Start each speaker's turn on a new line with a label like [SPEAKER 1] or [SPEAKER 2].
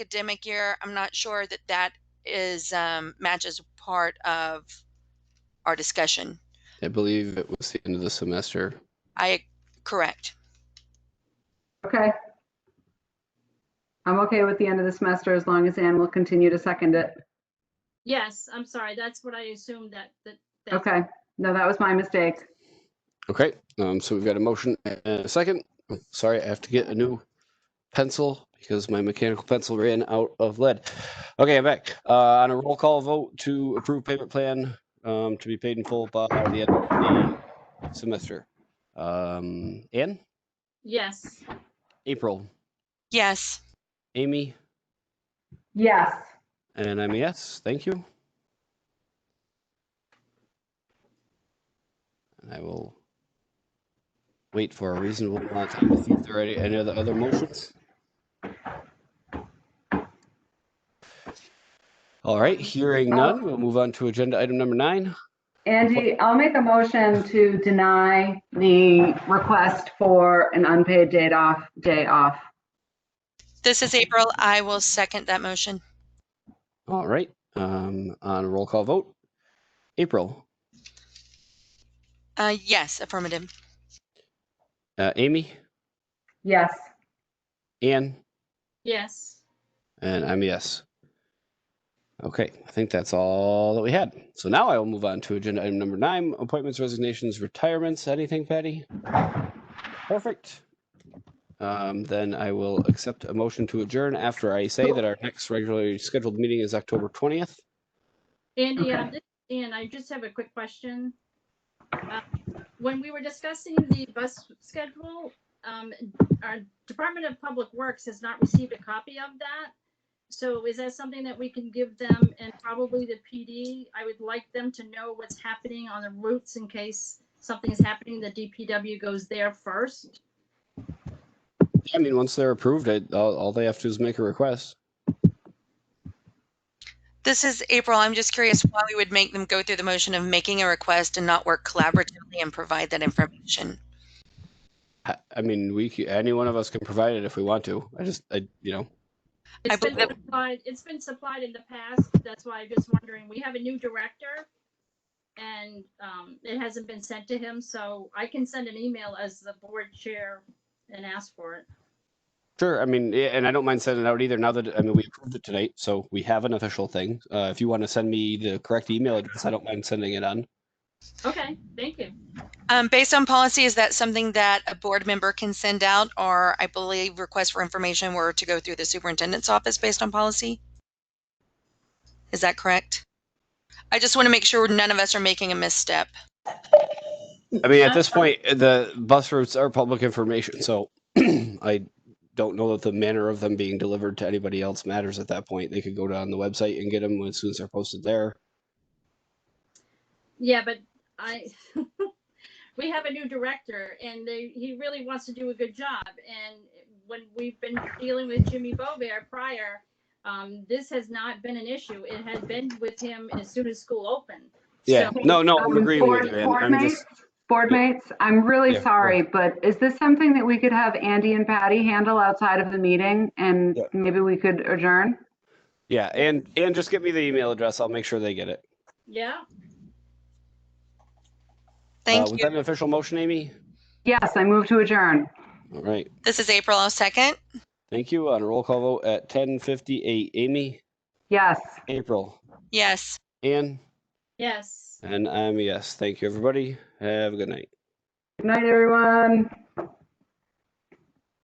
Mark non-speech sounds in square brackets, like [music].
[SPEAKER 1] academic year, I'm not sure that that is, um, matches part of our discussion.
[SPEAKER 2] I believe it was the end of the semester.
[SPEAKER 1] I, correct.
[SPEAKER 3] Okay. I'm okay with the end of the semester as long as Ann will continue to second it.
[SPEAKER 4] Yes, I'm sorry. That's what I assumed that, that. that-
[SPEAKER 3] Okay, no, that was my mistake.
[SPEAKER 2] Okay, um, so we've got a motion and a second. Oh, Sorry, I have to get a new pencil because my mechanical pencil ran out of lead. Okay, I'm back. Uh, on a roll call vote to approve payment plan, um, to be paid in full by the end of the semester. Um, Ann,
[SPEAKER 4] Yes,
[SPEAKER 2] April,
[SPEAKER 1] Yes,
[SPEAKER 2] Amy,
[SPEAKER 3] Yes.
[SPEAKER 2] and I'm a yes. Thank you. And I will wait for a reasonable amount of time to see if there are any, any other, other motions. All right, hearing none, we'll move on to agenda item number nine.
[SPEAKER 3] Angie, I'll make a motion to deny the request for an unpaid day off, day off.
[SPEAKER 1] this is April. I will second that motion.
[SPEAKER 2] All right, um, on a roll call vote. April,
[SPEAKER 1] Uh, yes, affirmative.
[SPEAKER 2] uh, Amy,
[SPEAKER 3] Yes.
[SPEAKER 2] Ann,
[SPEAKER 4] yes.
[SPEAKER 2] And I'm a yes. Okay, I think that's all that we had. So now I will move on to agenda item number nine, appointments, resignations, retirements. Anything, Patty? Perfect. Um, then I will accept a motion to adjourn after I say that our next regularly scheduled meeting is October twentieth.
[SPEAKER 4] Andy,
[SPEAKER 3] Okay.
[SPEAKER 4] um, this- Ann, I just have a quick question. Uh, When we were discussing the bus schedule, um, our Department of Public Works has not received a copy of that. So is that something that we can give them and probably the PD? I would like them to know what's happening on the routes in case something's happening, the DPW goes there first.
[SPEAKER 2] I mean, once they're approved, I, all, all they have to is make a request.
[SPEAKER 1] This is April. I'm just curious why we would make them go through the motion of making a request and not work collaboratively and provide that information.
[SPEAKER 2] I, I mean, we, c- any one of us can provide it if we want to. I just, I, you know,
[SPEAKER 1] I
[SPEAKER 4] It's been
[SPEAKER 1] believe-
[SPEAKER 4] supplied, it's been supplied in the past, that's why I'm just wondering, we have a new director. And, um, it hasn't been sent to him, so I can send an email as the board chair and ask for it.
[SPEAKER 2] Sure. I mean, yeah, and I don't mind sending it out either. Now that I mean, we approved it tonight, so we have an official thing. Uh, if you want to send me the correct email address, I don't mind sending it on.
[SPEAKER 4] Okay, thank you.
[SPEAKER 1] Um, based on policy, is that something that a board member can send out or I believe requests for information were to go through the superintendent's office based on policy? Is that correct? I just want to make sure none of us are making a misstep.
[SPEAKER 2] I mean, at this point, the bus routes are public information, so [clears throat] I don't know that the manner of them being delivered to anybody else matters at that point. They could go down the website and get them as soon as they're posted there.
[SPEAKER 4] Yeah, but I, [laughs] we have a new director and they, he really wants to do a good job. And when we've been dealing with Jimmy Bovair prior, um, this has not been an issue. It had been with him as soon as school opened.
[SPEAKER 2] Yeah.
[SPEAKER 4] So-
[SPEAKER 2] No, no, I'm
[SPEAKER 3] Um,
[SPEAKER 2] agreeing with
[SPEAKER 3] board-
[SPEAKER 2] you. man.
[SPEAKER 3] board
[SPEAKER 2] I'm
[SPEAKER 3] mates-
[SPEAKER 2] just.
[SPEAKER 3] Board mates, I'm really
[SPEAKER 2] Yeah,
[SPEAKER 3] sorry, but is this something that we could have Andy and Patty handle outside of the meeting? And
[SPEAKER 2] Yeah.
[SPEAKER 3] maybe we could adjourn?
[SPEAKER 2] Yeah, and and just give me the email address. I'll make sure they get it.
[SPEAKER 4] Yeah,
[SPEAKER 1] Thank
[SPEAKER 2] uh, Was
[SPEAKER 1] you.
[SPEAKER 2] that an official motion, Amy?
[SPEAKER 3] Yes, I move to adjourn.
[SPEAKER 2] All right.
[SPEAKER 1] This is April. I'll second.
[SPEAKER 2] Thank you. On a roll call vote at ten fifty-eight, Amy,
[SPEAKER 3] Yes.
[SPEAKER 2] April,
[SPEAKER 1] Yes.
[SPEAKER 2] Ann,
[SPEAKER 4] yes.
[SPEAKER 2] um, and I'm a yes. Thank you, everybody. Have a good night.
[SPEAKER 3] Good night, everyone.